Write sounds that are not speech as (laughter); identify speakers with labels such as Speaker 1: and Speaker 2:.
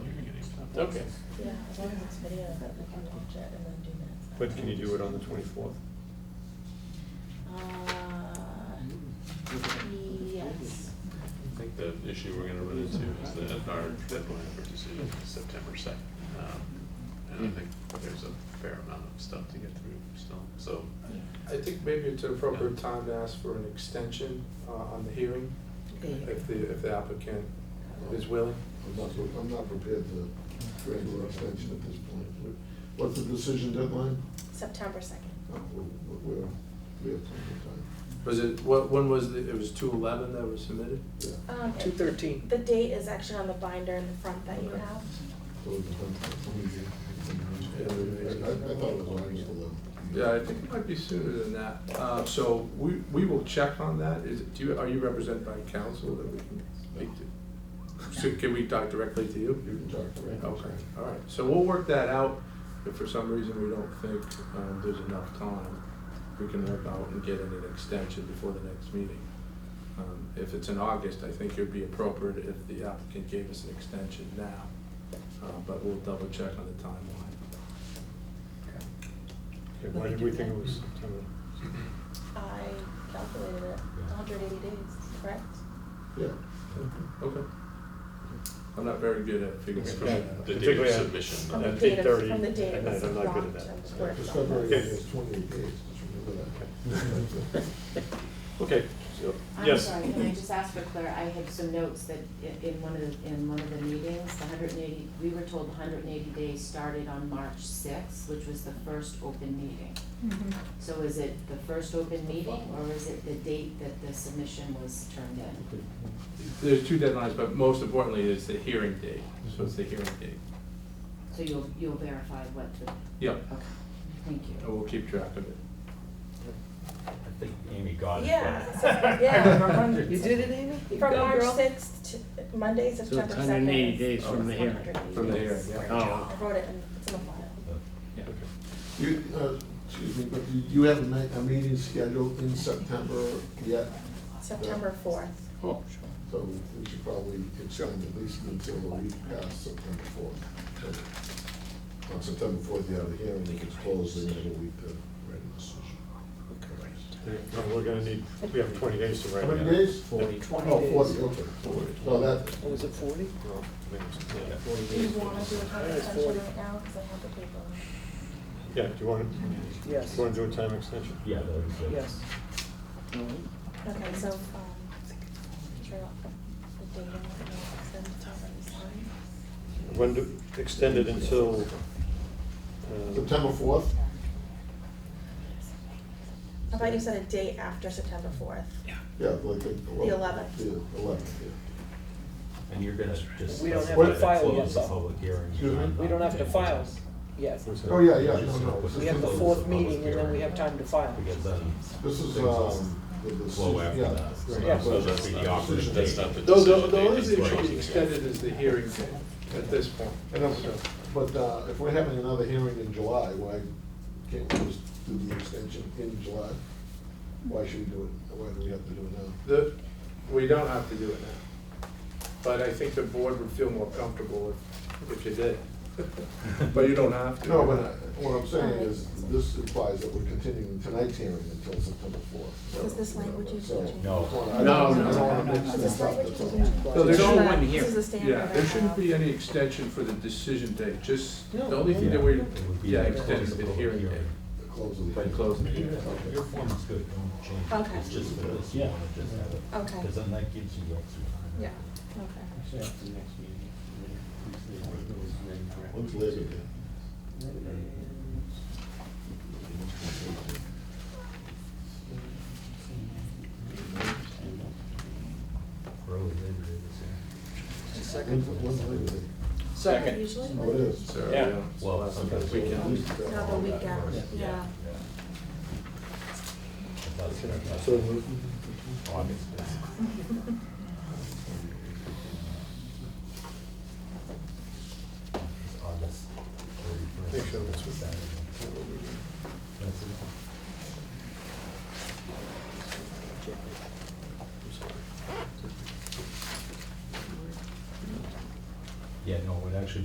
Speaker 1: Okay.
Speaker 2: Yeah, as long as it's video, that we can watch it and then do minutes.
Speaker 1: But can you do it on the twenty-fourth?
Speaker 2: Uh, yes.
Speaker 3: I think the issue we're gonna run into is that our deadline for decision is September second. Um, And I think there's a fair amount of stuff to get through still, so.
Speaker 4: I think maybe it's an appropriate time to ask for an extension uh, on the hearing, if the, if the applicant is willing.
Speaker 5: I'm not, I'm not prepared to grant an extension at this point. What- What's the decision deadline?
Speaker 2: September second.
Speaker 5: No, we're- We're, we have plenty of time.
Speaker 4: Was it, what, when was, the- it was two eleven that was submitted?
Speaker 5: Yeah.
Speaker 2: Um, it-
Speaker 4: 2:13.
Speaker 2: The date is actually on the binder in the front that you
Speaker 4: Okay.
Speaker 2: have.
Speaker 5: So it's a- I, I thought it was August eleventh.
Speaker 4: Yeah, I think it might be sooner than that. Uh, So we, we will check on that. Is, it- do you, are you represented by counsel that we can speak to? So can we talk directly to
Speaker 5: You
Speaker 4: you?
Speaker 5: can talk to me.
Speaker 4: Okay, all right. So we'll work that out. If for some reason we don't think um, there's enough time, we can work out and get an extension before the next meeting. Um, If it's in August, I think it would be appropriate if the applicant gave us an extension now. Uh, But we'll double check on the timeline.
Speaker 1: Okay, why did we think it was September?
Speaker 2: I calculated it, hundred eighty days, correct?
Speaker 5: Yeah.
Speaker 4: Okay. I'm not very good at figuring
Speaker 1: Okay.
Speaker 4: stuff out.
Speaker 3: The date
Speaker 1: particularly uh,
Speaker 3: of
Speaker 1: on-
Speaker 3: submission.
Speaker 2: uh, From the
Speaker 1: At
Speaker 2: date of-
Speaker 1: 8:30
Speaker 2: From the date
Speaker 1: at
Speaker 2: it
Speaker 1: night,
Speaker 2: was
Speaker 1: I'm not good
Speaker 2: locked
Speaker 1: at that.
Speaker 2: and
Speaker 5: Yeah,
Speaker 2: squared off.
Speaker 5: Discovery is twenty-eight days, just remember that.
Speaker 4: (laughs)
Speaker 1: Okay, so,
Speaker 6: I'm
Speaker 1: yes.
Speaker 6: sorry, can I just ask for Claire, I had some notes that i- in one of, the- in one of the meetings, the hundred and eighty, we were told the hundred and eighty days started on March sixth, which was the first open meeting. So is it the first open meeting, or is it the date that the submission was turned in?
Speaker 4: There's two deadlines, but most importantly is the hearing date, so it's the hearing date.
Speaker 6: So you'll, you'll verify what the,
Speaker 4: Yep,
Speaker 6: okay, thank you.
Speaker 4: and we'll keep track of it.
Speaker 7: Oh, I think Amy got it.
Speaker 2: Yeah,
Speaker 7: but-
Speaker 2: so- (laughs) yeah.
Speaker 8: You did it, Amy? You
Speaker 2: From
Speaker 8: go,
Speaker 2: March
Speaker 8: girl.
Speaker 2: sixth to Monday, September second.
Speaker 9: 180 days
Speaker 4: from the
Speaker 9: hearing.
Speaker 4: From the hearing, yeah.
Speaker 9: Oh.
Speaker 2: I wrote it in, it's in the file.
Speaker 4: Yeah.
Speaker 5: You, uh, excuse me, but you- you have a ma- a meeting scheduled in September yet,
Speaker 2: September fourth.
Speaker 9: Oh,
Speaker 5: so we should probably extend at least until a week past September fourth. On September fourth, you have the hearing, it gets closed, and then a week to write a decision.
Speaker 1: No, We're gonna need, we have twenty days to write
Speaker 5: How
Speaker 1: it out.
Speaker 5: many days?
Speaker 1: Forty.
Speaker 5: Oh, forty, okay. Well, that,
Speaker 8: Oh, Was it forty?
Speaker 1: Well, I mean, yeah.
Speaker 2: Do you wanna do a time
Speaker 8: Alright,
Speaker 2: extension
Speaker 8: 40.
Speaker 2: right now, cause I have the paper on it.
Speaker 1: Yeah, do you want, to? do
Speaker 8: Yes.
Speaker 1: you want to do a time extension?
Speaker 7: Yeah, that was it.
Speaker 8: Yes.
Speaker 2: Okay, so, um, sure, the date and whatnot, then it's already signed.
Speaker 1: When do, extend it until? uh,
Speaker 5: September fourth?
Speaker 2: I thought you said a date after September fourth. Yeah.
Speaker 5: Yeah, like the.
Speaker 2: The 11th.
Speaker 5: The eleventh, yeah.
Speaker 7: And you're gonna just.
Speaker 8: We don't have
Speaker 7: specify
Speaker 8: file
Speaker 5: to
Speaker 7: that
Speaker 8: yet,
Speaker 7: Close the
Speaker 8: though.
Speaker 7: public hearing.
Speaker 5: Excuse me?
Speaker 8: We don't have to file yet.
Speaker 1: what's that?
Speaker 5: Oh, yeah, yeah, no, no.
Speaker 8: We have the fourth meeting and then we have time to file.
Speaker 7: Because then. um,
Speaker 5: This is,
Speaker 7: things will
Speaker 5: um, the decision,
Speaker 7: Flow after
Speaker 5: yeah.
Speaker 7: that. So
Speaker 5: Right.
Speaker 7: that's- so
Speaker 5: Yeah.
Speaker 7: that's the operative
Speaker 5: That's
Speaker 7: date.
Speaker 5: not
Speaker 3: the-
Speaker 4: Though, the, the only
Speaker 3: Decision
Speaker 4: thing
Speaker 3: date
Speaker 4: that should be
Speaker 3: is
Speaker 4: extended is the hearing date at this point.
Speaker 5: And I'm- But uh, if we're having another hearing in July, why can't we just do the extension in July? Why should we do it, why do we have to do it now?
Speaker 4: The, we don't have to do it now, but I think the board would feel more comfortable if, if you
Speaker 7: (laughs)
Speaker 4: did. But you don't have to.
Speaker 5: No, but I- what I'm saying is, this implies that we're continuing tonight's hearing until September fourth.
Speaker 2: Because this language is changing.
Speaker 7: No.
Speaker 5: I don't wanna- I don't wanna mix
Speaker 2: Because
Speaker 5: this
Speaker 2: this
Speaker 5: up,
Speaker 2: language
Speaker 5: that's
Speaker 2: is
Speaker 5: all.
Speaker 2: changing.
Speaker 4: No, there's
Speaker 2: This is
Speaker 4: no
Speaker 2: a-
Speaker 9: one here.
Speaker 2: This is a standard.
Speaker 4: Yeah, there shouldn't be any extension for the decision date, just, the only thing that we,
Speaker 7: It would be
Speaker 4: yeah,
Speaker 7: the
Speaker 4: extended
Speaker 7: close of
Speaker 4: the
Speaker 7: public
Speaker 4: hearing date.
Speaker 5: The close of the.
Speaker 4: By closing the hearing.
Speaker 5: Okay.
Speaker 7: Your form is good, don't change it.
Speaker 2: Okay.
Speaker 7: It's just for this, you wanna just have it.
Speaker 2: Okay.
Speaker 7: Because then that gives you extra time.
Speaker 2: Yeah, okay.
Speaker 5: When's Labor Day?
Speaker 7: Early Labor Day this year.
Speaker 5: When's- When's Labor Day?
Speaker 2: Second. Usually.
Speaker 5: Oh, it is. uh,
Speaker 4: So,
Speaker 9: Yeah.
Speaker 4: yeah. so
Speaker 7: Well,
Speaker 4: that's
Speaker 7: okay, so
Speaker 4: the
Speaker 7: at
Speaker 4: weekend.
Speaker 7: least that-
Speaker 2: Now the weekend,
Speaker 7: Yeah.
Speaker 2: yeah.
Speaker 7: If that's- if
Speaker 5: 啊
Speaker 7: that's
Speaker 1: So,
Speaker 7: August. It's August thirty-first.
Speaker 1: Make sure that's what-
Speaker 7: Saturday. That's it.